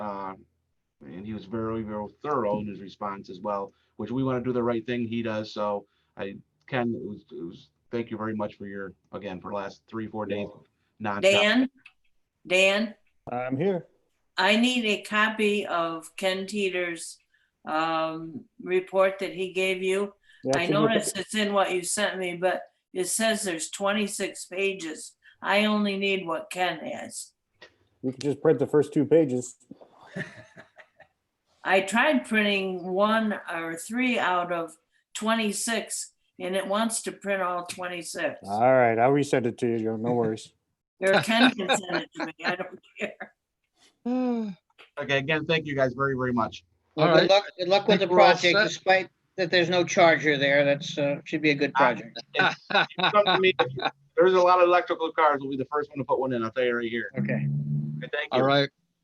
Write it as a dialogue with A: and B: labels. A: and he was very, very thorough in his response as well, which we want to do the right thing. He does. So I, Ken, it was, it was, thank you very much for your, again, for the last three, four days. nonstop.
B: Dan? Dan,
C: I'm here.
B: I need a copy of Ken Teeter's um, report that he gave you.
C: Yeah,
B: I
C: it's in your-
B: noticed it's in what you sent me, but it says there's 26 pages. I only need what Ken has.
C: You can just print the first two pages.
B: I tried printing one or three out of 26 and it wants to print all 26.
C: All right, I'll resend it to you, Joe. No worries.
B: Or Ken can send it to me. I don't care.
D: All
A: Okay, again, thank you guys very, very much.
E: Well,
D: right,
E: good luck, good luck with
D: think
E: the
D: we're all
E: project,
D: set.
E: despite that there's no charger there. That's, uh, should be a good project.
A: Come to me. There's a lot of electrical cars. We'll be the first one to put one in. I'll tell you right here.
E: Okay.
A: Okay, Thank
D: all
A: you.
D: right.